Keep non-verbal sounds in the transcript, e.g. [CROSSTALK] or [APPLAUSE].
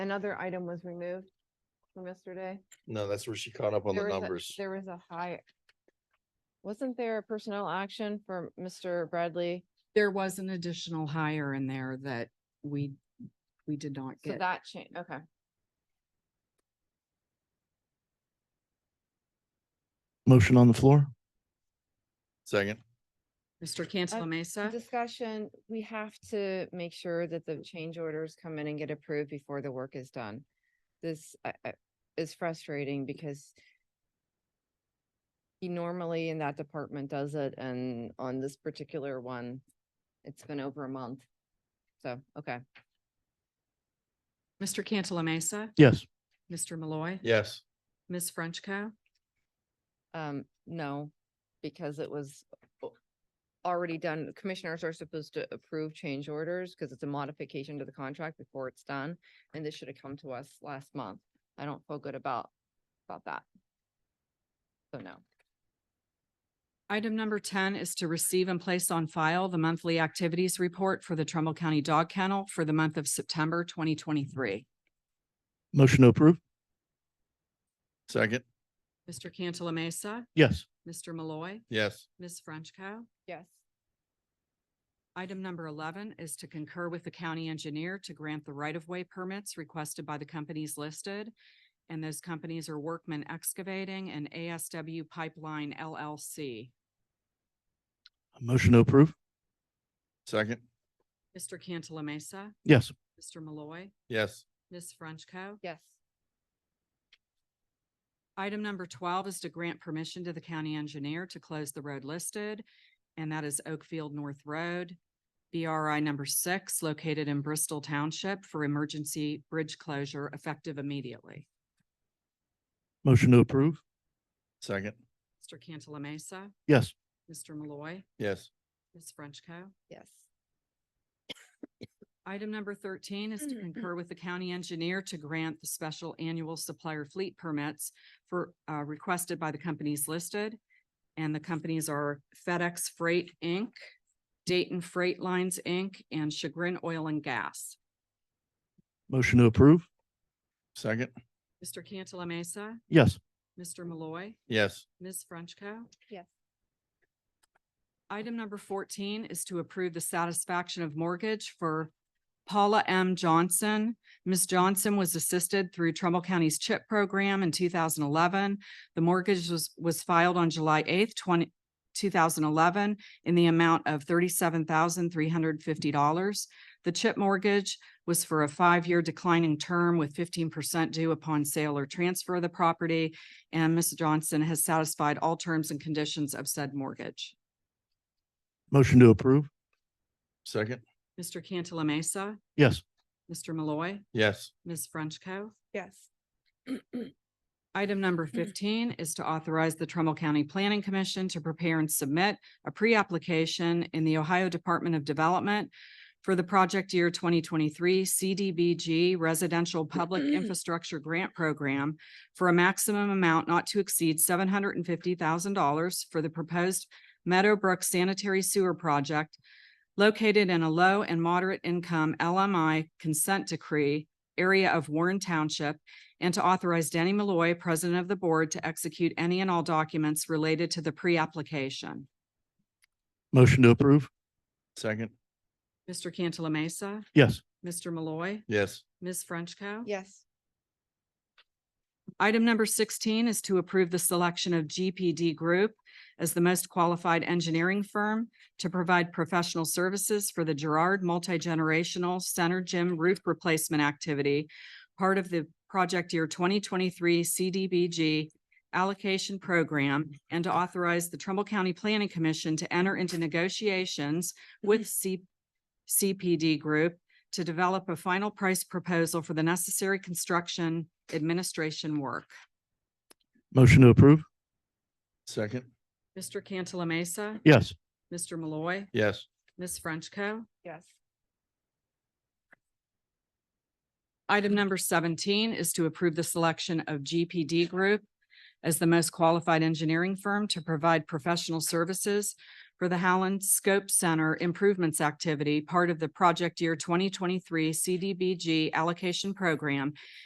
another item was removed from yesterday. No, that's where she caught up on the There was a- numbers. There was a high. Wasn't there a personnel action for Mr. Bradley? There was an additional hire in there that we, we did not So get. that changed, okay. Motion on the floor? Second, Mr. Cantala Mesa, Uh-huh. Discussion, we have to make sure that the change orders come in and get approved before the work is done. This uh, uh, is frustrating because he normally in that department does it and on this particular one, it's been over a month. So, okay. Mr. Cantala Mesa, Yes. Mr. Malloy, yes, Ms. Frenchco. Um, no, because it was o- already done. Commissioners are supposed to approve change orders because it's a modification to the contract before it's done. And this should have come to us last month. I don't feel good about, about that. So no. Item number ten is to receive and place on file the monthly activities report for the Trumbull County Dog Kennel for the month of September twenty twenty-three. Motion to approve? second, Mr. Cantala Mesa, Yes. Mr. Malloy, yes, Ms. Frenchco. Yes. Item number eleven is to concur with the county engineer to grant the right-of-way permits requested by the companies listed. And those companies are Workman Excavating and ASW Pipeline LLC. Motion to approve? second, Mr. Cantala Mesa, Yes. Mr. Malloy, yes, Ms. Frenchco. Yes. Item number twelve is to grant permission to the county engineer to close the road listed, and that is Oakfield North Road, BRI number six, located in Bristol Township for emergency bridge closure effective immediately. Motion to approve? second, Mr. Cantala Mesa, Yes. Mr. Malloy, yes, Ms. Frenchco. Yes. Item number thirteen is to concur with the county engineer to grant the special annual supplier fleet permits for, uh, requested by the companies listed. And the companies are FedEx Freight, Inc., Dayton Freight Lines, Inc., and Chagrin Oil and Gas. Motion to approve? second, Mr. Cantala Mesa, Yes. Mr. Malloy, yes, Ms. Frenchco. Yes. Item number fourteen is to approve the satisfaction of mortgage for Paula M. Johnson. Ms. Johnson was assisted through Trumbull County's CHIP program in two thousand eleven. The mortgage was, was filed on July eighth, 20 2011, in the amount of thirty-seven thousand, three hundred fifty dollars. The CHIP mortgage was for a five-year declining term with fifteen percent due upon sale or transfer of the property. And Ms. Johnson has satisfied all terms and conditions of said mortgage. Motion to approve? second, Mr. Cantala Mesa, Yes. Mr. Malloy, yes, Ms. Frenchco. Yes. [CLEARS THROAT] Item number fifteen is to authorize the Trumbull County Planning Commission to prepare and submit a pre-application in the Ohio Department of Development for the project year twenty twenty-three CDBG Residential Public Infrastructure Grant Program for a maximum amount not to exceed seven hundred and fifty thousand dollars for the proposed Meadowbrook Sanitary Sewer Project located in a low and moderate income LMI consent decree area of Warren Township and to authorize Danny Malloy, President of the Board, to execute any and all documents related to the pre-application. Motion to approve? second, Mr. Cantala Mesa, Yes. Mr. Malloy, yes, Ms. Frenchco. Yes. Item number sixteen is to approve the selection of GPD Group as the most qualified engineering firm to provide professional services for the Gerard Multi-Generational Center Gym Roof Replacement Activity, part of the project year twenty twenty-three CDBG allocation program, and to authorize the Trumbull County Planning Commission to enter into negotiations with C- CPD Group to develop a final price proposal for the necessary construction administration work. Motion to approve? second, Mr. Cantala Mesa, Yes. Mr. Malloy, yes, Ms. Frenchco. Yes. Item number seventeen is to approve the selection of GPD Group as the most qualified engineering firm to provide professional services for the Howland Scope Center Improvements Activity, part of the Project Year twenty twenty-three CDBG Allocation Program